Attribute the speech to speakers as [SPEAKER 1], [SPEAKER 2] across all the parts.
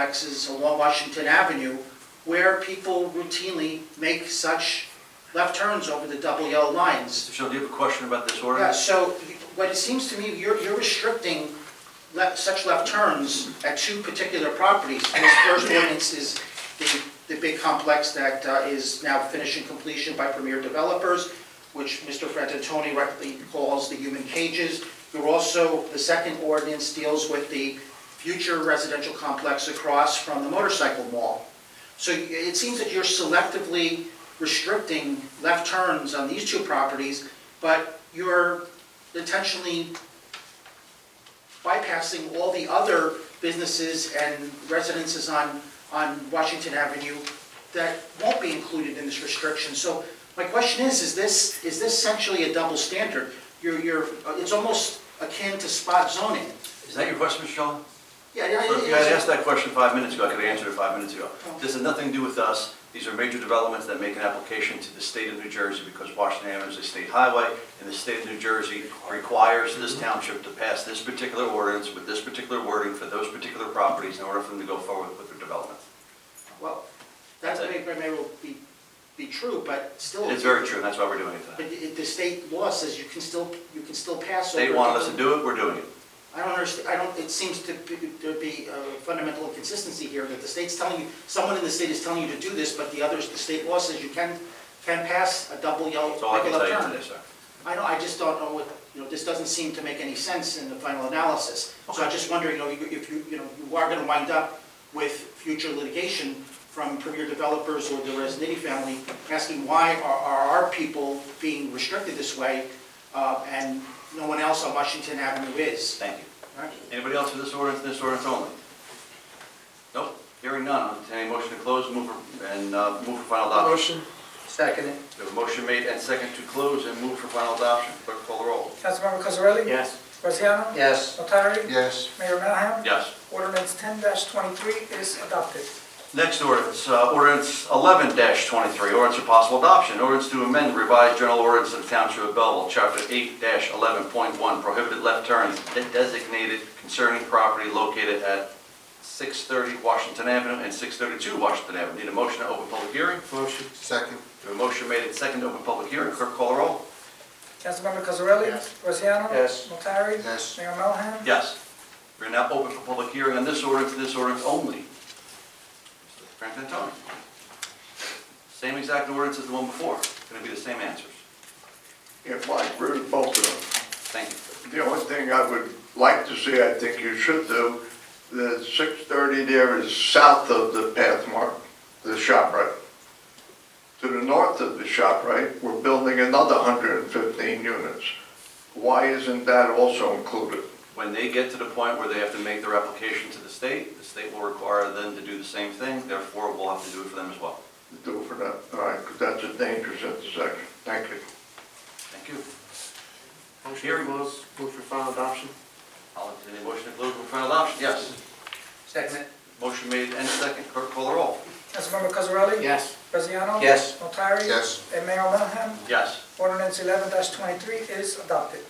[SPEAKER 1] complexes along Washington Avenue where people routinely make such left turns over the double yellow lines.
[SPEAKER 2] Mr. Shaw, do you have a question about this
[SPEAKER 1] Yeah,
[SPEAKER 2] ordinance?
[SPEAKER 1] so what it seems to me, you're, you're restricting le- such left turns at two particular properties. And this first ordinance is the, the big complex that uh, is now finishing completion by Premier Developers, which Mr. Frantantoni rightly calls the human cages. You're also, the second ordinance deals with the future residential complex across from the motorcycle mall. So it seems that you're selectively restricting left turns on these two properties, but you're intentionally bypassing all the other businesses and residences on, on Washington Avenue that won't be included in this restriction. So my question is, is this, is this essentially a double standard? You're, you're, it's almost akin to spot zoning.
[SPEAKER 2] Is that your question, Mr. Shaw?
[SPEAKER 1] Yeah, yeah,
[SPEAKER 2] If
[SPEAKER 1] it-
[SPEAKER 2] you had
[SPEAKER 1] it's-
[SPEAKER 2] asked that question five minutes ago, I could have answered it five minutes ago. This has nothing to do with us. These are major developments that make an application to the state of New Jersey because Washington Avenue is a state highway, and the state of New Jersey requires
[SPEAKER 1] Mm-hmm.
[SPEAKER 2] this township to pass this particular ordinance with this particular wording for those particular properties in order for them to go forward with their development.
[SPEAKER 1] Well, that may, may well be, be true, but still.
[SPEAKER 2] And it's very true, and that's why we're doing it
[SPEAKER 1] But
[SPEAKER 2] tonight.
[SPEAKER 1] i- the state law says you can still, you can still pass over.
[SPEAKER 2] State wanted us to do it, we're doing it.
[SPEAKER 1] I don't understand, I don't, it seems to be, there be a fundamental inconsistency here, that the state's telling you, someone in the state is telling you to do this, but the others, the state law says you can, can pass a double yellow,
[SPEAKER 2] That's all I can
[SPEAKER 1] regular
[SPEAKER 2] tell you
[SPEAKER 1] turn.
[SPEAKER 2] today, sir.
[SPEAKER 1] I know, I just don't know what, you know, this doesn't seem to make any sense in the final analysis. So I just wonder, you know, if you, you know, you are gonna wind up with future litigation from premier developers or the Resnitty family asking why are, are our people being restricted this way, uh, and no one else on Washington Avenue is.
[SPEAKER 2] Thank you.
[SPEAKER 1] All right?
[SPEAKER 2] Anybody else for this ordinance, this ordinance only? Nope, hearing none, I'll entertain a motion to close, move for, and uh, move for final adoption.
[SPEAKER 3] Motion. Second.
[SPEAKER 2] We have a motion made and second to close and move for final adoption. Clerk call the roll.
[SPEAKER 4] Councilmember Cosarelli?
[SPEAKER 3] Yes.
[SPEAKER 4] Braziano?
[SPEAKER 3] Yes.
[SPEAKER 4] Notari?
[SPEAKER 5] Yes,
[SPEAKER 4] Mayor Melham?
[SPEAKER 2] Yes.
[SPEAKER 4] Ordinance ten twenty-three is adopted.
[SPEAKER 2] Next ordinance, uh, ordinance eleven twenty-three, ordinance for possible adoption, ordinance to amend revised general ordinance of the Township of Belleville, chapter eight eleven point one, prohibited left turns de- designated concerning property located at six thirty Washington Avenue and six thirty-two Washington Avenue. Need a motion to open public hearing?
[SPEAKER 3] Motion.
[SPEAKER 5] second,
[SPEAKER 2] We have a motion made and second to open public hearing. Clerk call the roll.
[SPEAKER 4] Councilmember Cosarelli?
[SPEAKER 3] Yes.
[SPEAKER 4] Braziano?
[SPEAKER 3] Yes.
[SPEAKER 4] Notari?
[SPEAKER 5] Yes.
[SPEAKER 4] Mayor Melham?
[SPEAKER 2] Yes. We're now open for public hearing on this ordinance, and this ordinance only. Mr. Frantantoni. Same exact ordinance as the one before. Going to be the same answers.
[SPEAKER 6] If I really both of
[SPEAKER 2] Thank you.
[SPEAKER 6] them. The only thing I would like to see, I think you should do, the six thirty there is south of the Pathmark, the shop right. To the north of the shop right, we're building another hundred and fifteen units. Why isn't that also included?
[SPEAKER 2] When they get to the point where they have to make their application to the state, the state will require them to do the same thing, therefore we'll have to do it for them as well.
[SPEAKER 6] Do for that, all right, because that's a dangerous intersection. Thank you.
[SPEAKER 2] Thank you.
[SPEAKER 3] Motion to
[SPEAKER 2] Hearing.
[SPEAKER 3] close, move for final adoption.
[SPEAKER 2] I'll entertain a motion to close for final adoption. Yes.
[SPEAKER 3] Second.
[SPEAKER 2] Motion made and second. Clerk call the roll.
[SPEAKER 4] Councilmember Cosarelli?
[SPEAKER 3] Yes.
[SPEAKER 4] Braziano?
[SPEAKER 3] Yes.
[SPEAKER 4] Notari?
[SPEAKER 5] yes,
[SPEAKER 4] And Mayor Melham?
[SPEAKER 2] Yes.
[SPEAKER 4] Ordinance eleven twenty-three is adopted.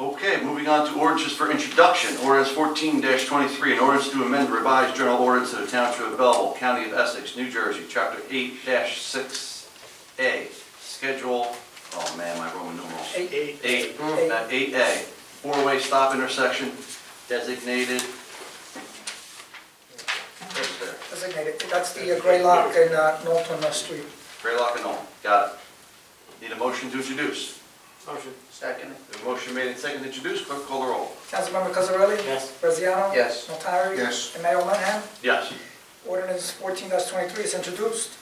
[SPEAKER 2] Okay, moving on to ordinances for introduction. Ordinance fourteen twenty-three, an ordinance to amend the revised general ordinance of the Township of Belleville, County of Essex, New Jersey, Chapter eight six A, Schedule, oh man, my Roman numerals.
[SPEAKER 4] Eight.
[SPEAKER 2] Eight, uh, eight A, four-way stop intersection designated. Where's there?
[SPEAKER 4] Designated. That's the uh, gray lock in uh, Norton uh, Street.
[SPEAKER 2] Graylock and all, got it. Need a motion to introduce.
[SPEAKER 3] Motion. Second.
[SPEAKER 2] The motion made and seconded to introduce, clerk call the roll.
[SPEAKER 4] Councilmember Cosarelli?
[SPEAKER 3] Yes.
[SPEAKER 4] Braziano?
[SPEAKER 3] Yes.
[SPEAKER 4] Notari?
[SPEAKER 5] Yes.
[SPEAKER 4] And Mayor Melham?
[SPEAKER 2] Yes.
[SPEAKER 4] Ordinance fourteen twenty-three is introduced.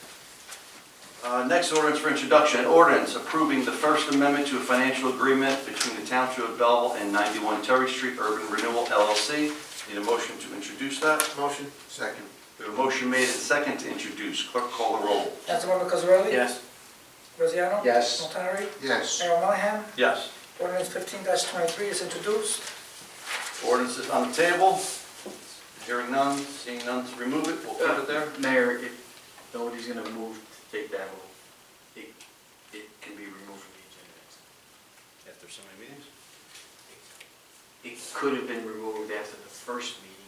[SPEAKER 2] Uh, Next ordinance for introduction, an ordinance approving the First Amendment to a financial agreement between the Township of Belleville and 91 Terry Street Urban Renewal LLC. Need a motion to introduce that?
[SPEAKER 3] Motion.
[SPEAKER 5] second,
[SPEAKER 2] We have a motion made and second to introduce. Clerk call the roll.
[SPEAKER 4] Councilmember Cosarelli?
[SPEAKER 3] Yes.
[SPEAKER 4] Braziano?
[SPEAKER 3] Yes.
[SPEAKER 4] Notari?
[SPEAKER 5] yes,
[SPEAKER 4] Mayor Melham?
[SPEAKER 2] Yes.
[SPEAKER 4] Ordinance fifteen twenty-three is introduced.
[SPEAKER 2] Ordinance is on the table. Hearing none, seeing none, remove it. We'll keep it there.
[SPEAKER 7] Mayor, if nobody's gonna move to take that vote, it, it can be removed from the agenda.
[SPEAKER 2] After so many meetings.
[SPEAKER 7] It could have been removed after the first meeting,